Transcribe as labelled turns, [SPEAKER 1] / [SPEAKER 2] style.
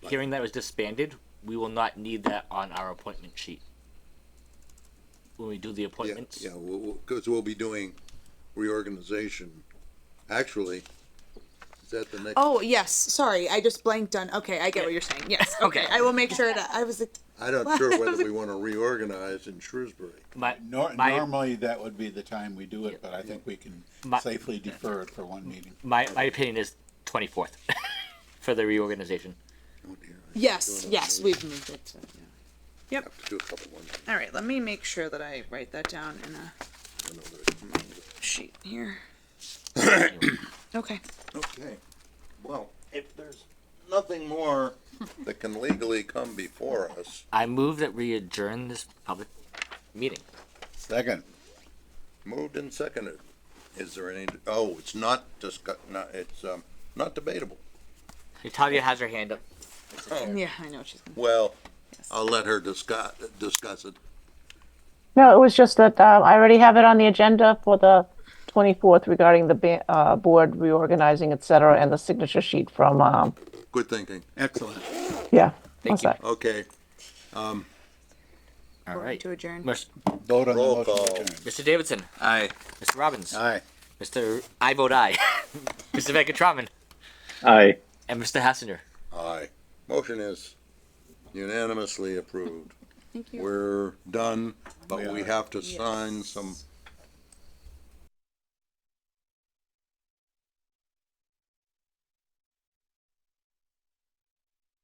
[SPEAKER 1] hearing that it was disbanded, we will not need that on our appointment sheet. When we do the
[SPEAKER 2] Yeah,
[SPEAKER 1] appointments,
[SPEAKER 2] yeah, because we'll be doing reorganization, actually, is that the next?
[SPEAKER 3] Oh yes, sorry, I just blanked on. Okay, I get what you're saying. Yes, okay, I will make sure that I was. like,
[SPEAKER 2] I'm not sure whether we want to reorganize in Shrewsbury.
[SPEAKER 1] my,
[SPEAKER 4] Nor-
[SPEAKER 1] my,
[SPEAKER 4] normally, that would be the time we do it, but I think we can
[SPEAKER 1] My-
[SPEAKER 4] safely defer it for one meeting.
[SPEAKER 1] my, my opinion is 24th for the reorganization.
[SPEAKER 2] Oh, dear, I
[SPEAKER 3] Yes, yes, we've moved it. To, yeah.
[SPEAKER 2] have to do a couple ones,
[SPEAKER 3] All right, let me make sure that I write that down in a
[SPEAKER 2] I know that-
[SPEAKER 3] sheet here. okay.
[SPEAKER 2] Hmm. Okay, well, if there's nothing more that can legally come before us,
[SPEAKER 1] I move that we adjourn this public meeting.
[SPEAKER 4] Second.
[SPEAKER 2] moved and seconded, is there any, oh, it's not discuss, not, it's, um, not debatable.
[SPEAKER 1] Natalia has her hand up.
[SPEAKER 3] Yeah, I know what she's gonna.
[SPEAKER 2] Well, I'll let her discuss, discuss it.
[SPEAKER 5] No, it was just that uh, I already have it on the agenda for the 24th regarding the ba- uh, board reorganizing, et cetera, and the signature sheet from, um,
[SPEAKER 2] Good thinking.
[SPEAKER 4] Excellent.
[SPEAKER 5] yeah.
[SPEAKER 1] Thank
[SPEAKER 5] what's
[SPEAKER 1] you.
[SPEAKER 5] that?
[SPEAKER 2] Okay,
[SPEAKER 1] All right.
[SPEAKER 3] To adjourn.
[SPEAKER 1] Mis-
[SPEAKER 4] Vote on
[SPEAKER 2] Roll
[SPEAKER 4] the motion.
[SPEAKER 2] call.
[SPEAKER 4] to adjourn.
[SPEAKER 1] Mr. Davidson,
[SPEAKER 4] Aye.
[SPEAKER 1] Mr. Robbins,
[SPEAKER 4] Aye.
[SPEAKER 1] Mr. I vote aye, Mr. Venkatraman,
[SPEAKER 6] Aye.
[SPEAKER 1] and Mr. Hassinger.
[SPEAKER 2] aye. Motion is unanimously approved.
[SPEAKER 3] Thank you.
[SPEAKER 2] We're done, but
[SPEAKER 4] We
[SPEAKER 2] we
[SPEAKER 4] are.
[SPEAKER 2] have to sign some